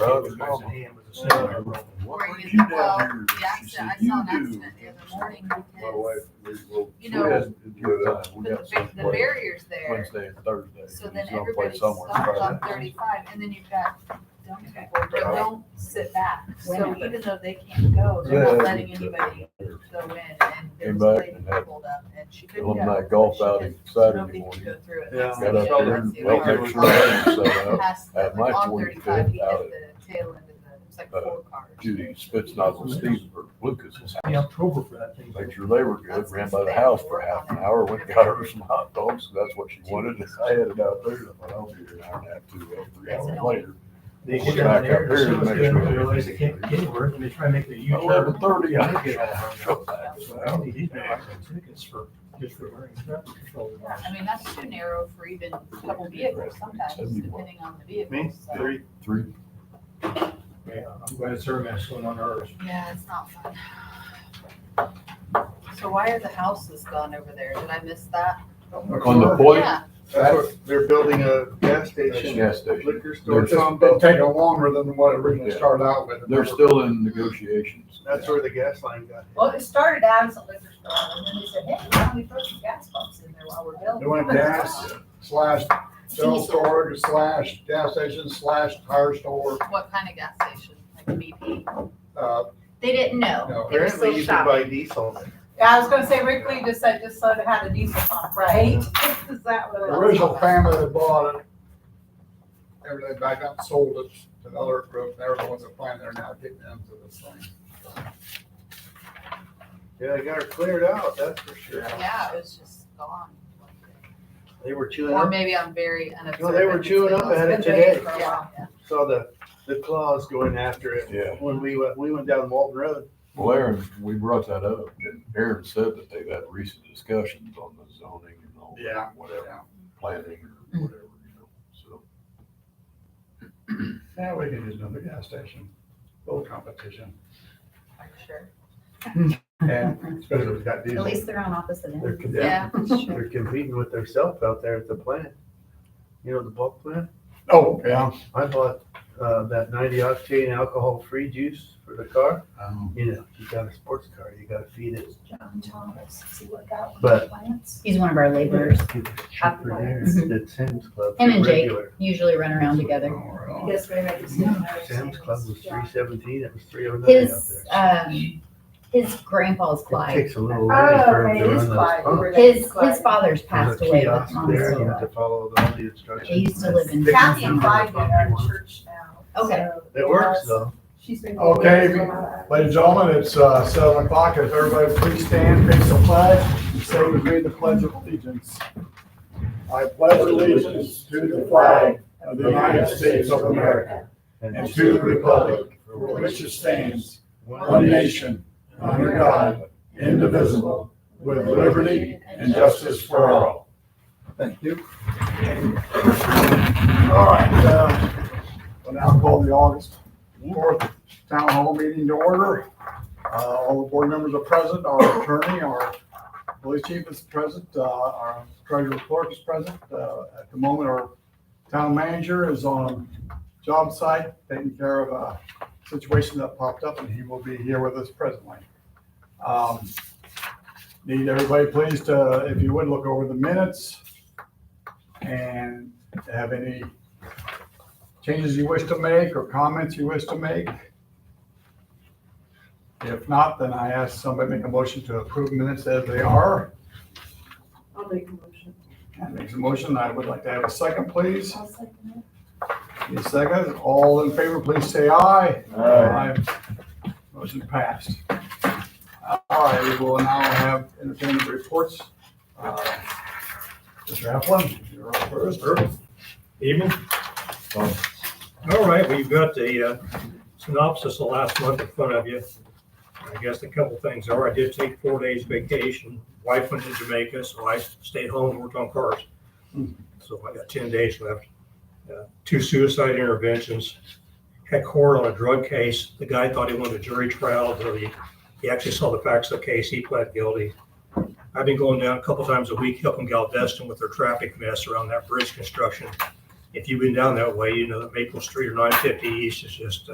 Drugs. What Were brought you- you well, down here? Yeah, I She said, I said, saw an you do. accident the other morning My wife, because we will. You know- we had- we had- put we the, got ba- the something barrier's there, Wednesday and Thursday. so and then he's gonna play everybody somewhere stopped on Friday. thirty-five, and then you've got dumb people that don't sit back. So even though they can't go, they're Yeah. not letting anybody go in, and there was a Came back lady and had- pulled up, and she couldn't go. Alumni golf She outing couldn't- Saturday Nobody could morning. go through it. Yeah. So, Got up yeah, there, that's the well, other picture part. set up. Past, At like my on 25, thirty-five, he out hit of- the tail end of the, it's like uh, four cars. Judy Spitznagle, Steve, or Lucas, was In October for that thing. Make sure they were good, ran by the house for half an hour, went and got her some hot dogs, and that's what she wanted, and I had it out there, and I thought, I'll be here an hour and a half, two, uh, three hours later. They get down there, and as soon as they realize they can't get anywhere, and they try to make a U-turn. Eleven thirty, Yeah, Oh, I they get get all out. hung up. So I need these guys on tickets for, just for wearing traffic control. Yeah, I mean, that's too narrow for even a couple vehicles sometimes, depending on the vehicle, Me, so. three, Three, Yeah, I'm glad it's our mess going on ours. Yeah, it's not fun. So why are the houses gone over there? Did I miss that? on the point, Yeah, that's what, they're building a gas station, gas station, liquor store, There's- something. It'd Um, take longer than what it originally Yeah. started out with. they're still in negotiations. That's where the gas line got. well, it started out as a liquor store, and then they said, hey, why don't we throw some gas pumps in there while we're building? They went gas slash cell Diesel. storage slash gas station slash tire store, What kind of gas station? Like BP? uh, They didn't know. No. They were still Apparently you can shopping. buy diesel. Yeah, I was gonna say, Rick Lee just said, just so it had a diesel pump, right? Is that the what it was? original family that bought it. Everything back up, sold it to another group, and they're the ones that find they're now getting into this thing. Yeah, they got her cleared out, that's for sure. Yeah, it was just gone. They were chewing Or up, maybe I'm very unobservant. No, they were chewing up at it It's been waiting today. for a Yeah, while. yeah. saw the, the claws going after it. Yeah. When we went, we went down Walton Road. Well, Aaron, we brought that up, and Aaron said that they've had recent discussions on the zoning and all Yeah, that, whatever, planning or whatever, you know, so. Now we can use another gas station, little competition, Sure. and especially if it's got diesel. At least they're on opposite ends. They're com- Yeah, sure. They're competing with themselves out there at the plant. You know, the bulk plant? Oh, yeah. I bought, uh, that ninety octane alcohol-free juice for the car. Um, You know, you got a sports car, you gotta feed it. John Thomas, see what that one But- plants. He's one of our laborers, It's cheaper there than Sam's Club. Him and Jake. regular. usually run around together. All I right. guess we make a decision. Mm-hmm. Sam's Club was three seventeen, it was three oh nine out His, there. um, his grandpa's It Clyde. takes a little while Oh, for him okay, to it run is those Clyde. pumps. His, his father's passed There's a away, but kiosk mom there, is You still have to alive. follow all the They instructions. used to live in. Kathy and Clyde go to our church now. Okay. so It works was- though. She's been. Okay, Ladies and gentlemen, it's uh, seven o'clock. If everybody please stand, face the flag, say with me the pledge of allegiance. I pledge allegiance to the flag of the United States of America and to the republic for which it stands, one nation, under God, indivisible, with liberty and justice for all. Thank you. All right, uh, we'll now call the August fourth town hall meeting to order. Uh, all the board members are present, our attorney, our police chief is present, uh, our treasurer clerk is present. Uh, at the moment, our town manager is on job site, taking care of a situation that popped up, and he will be here with us presently. Um, Need everybody please to, if you would, look over the minutes and have any changes you wish to make or comments you wish to make. If not, then I ask somebody to make a motion to approve minutes as they are. I'll make a motion. That makes a motion. I would like to have a second, please. I'll second it. Any seconds? All in favor, please say aye. Aye. Aye. Motion passed. All right, we will now have entertainment reports. Uh, Mr. Applin, you're up first. Evening. Um, All right, well, you've got the uh, synopsis of last month in front of you. I guess a couple things are, I did take four days vacation, wife went to Jamaica, so I stayed home, and worked on cars. So I got ten days left. Uh, Two suicide interventions, had court on a drug case, the guy thought he wanted a jury trial, but he, he actually saw the facts of the case, he pled guilty. I've been going down a couple times a week helping Galveston with their traffic mess around that bridge construction if you've been down that way, you know that Maple Street or nine fifty east is just